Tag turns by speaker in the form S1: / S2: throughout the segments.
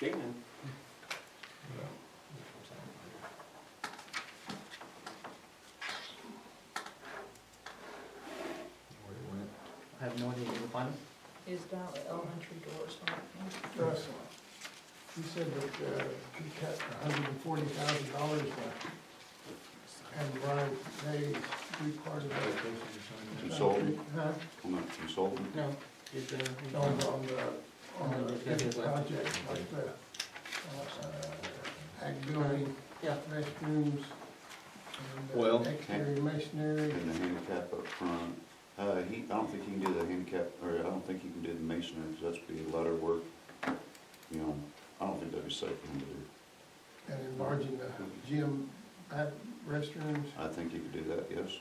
S1: Kingman.
S2: I have no idea where to find them.
S3: Is Valley Elementary doors on?
S4: Russ, you said that uh, you cut hundred and forty thousand dollars back. And Brian, they, we part of that.
S5: Consultant,
S4: Huh?
S5: I'm not consultant,
S4: No,
S2: Is there?
S4: on, on the, on the big project, like the, uh, ag building,
S2: Yeah.
S4: restrooms, and
S1: Well-
S4: uh, exterior masonry.
S5: and the handicap up front. Uh, he, I don't think he can do the handicap, or I don't think he can do the masonry, because that's be letter work. You know, I don't think that'd be safe for him to do.
S4: And enlarging the gym, uh, restrooms,
S5: I think he could do that, yes.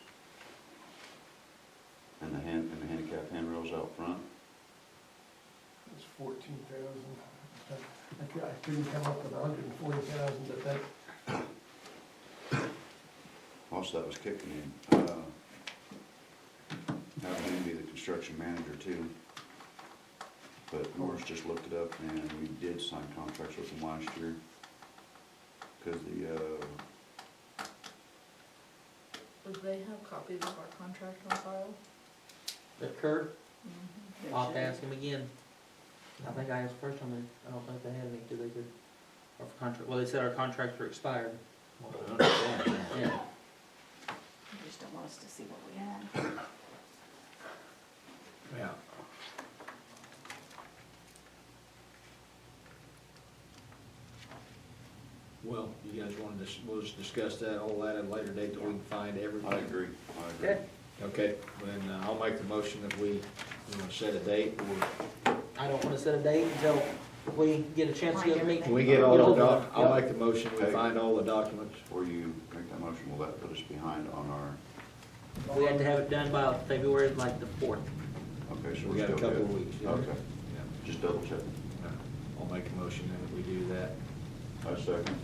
S5: And the hand, and the handicap handrails out front.
S4: it's fourteen thousand. I cou- I couldn't come up with a hundred and forty thousand, but that,
S5: Also, that was kicking in. Uh, That would be the construction manager too. But Morris just looked it up and we did sign contracts with them last year. Cause the, uh,
S3: Would they have copies of our contract on file?
S2: The curb,
S3: Mhm.
S6: Mm-hmm.
S2: I'll have to ask him again. I think I asked first time, and I don't think they had any, do they, good? Our contract, well, they said our contracts were expired, yeah.
S6: They just don't want us to see what we have.
S1: Yeah. Well, you guys wanna dis we'll just discuss that, all that at a later date, that we can find everything.
S5: I agree, I agree.
S2: Okay.
S1: Okay, then uh, I'll make the motion that we, we're gonna set a date, or
S2: I don't wanna set a date until we get a chance to get a meeting.
S1: when we get all the doc,
S2: Yeah.
S1: I'll make the motion, we
S5: Okay.
S1: find all the documents.
S5: Before you make that motion, will that put us behind on our,
S2: We had to have it done by February, like the fourth.
S5: okay, so
S1: We
S5: we're
S1: got a
S5: still good?
S1: couple of weeks, yeah.
S5: Okay,
S1: Yeah.
S5: just double check.
S1: I'll make a motion then that we do that.
S5: I second.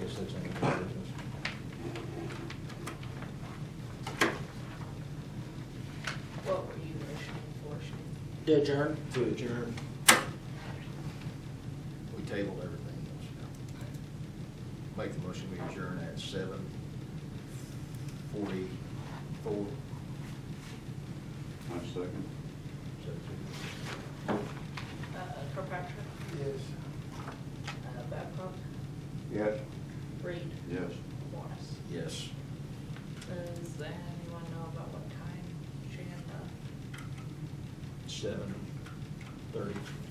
S1: Yes, that's in the business.
S3: What were you issuing for, Shane?
S2: To adjourn?
S1: To adjourn. We tabled everything else now. Make the motion, we adjourn at seven forty-four.
S5: I second.
S3: Uh, Kirkpatrick,
S4: is,
S3: uh, Babcock,
S5: Yes.
S3: Reed,
S5: Yes.
S3: Morris.
S1: Yes.
S3: Does anyone know about what time Shane, uh,
S1: Seven thirty.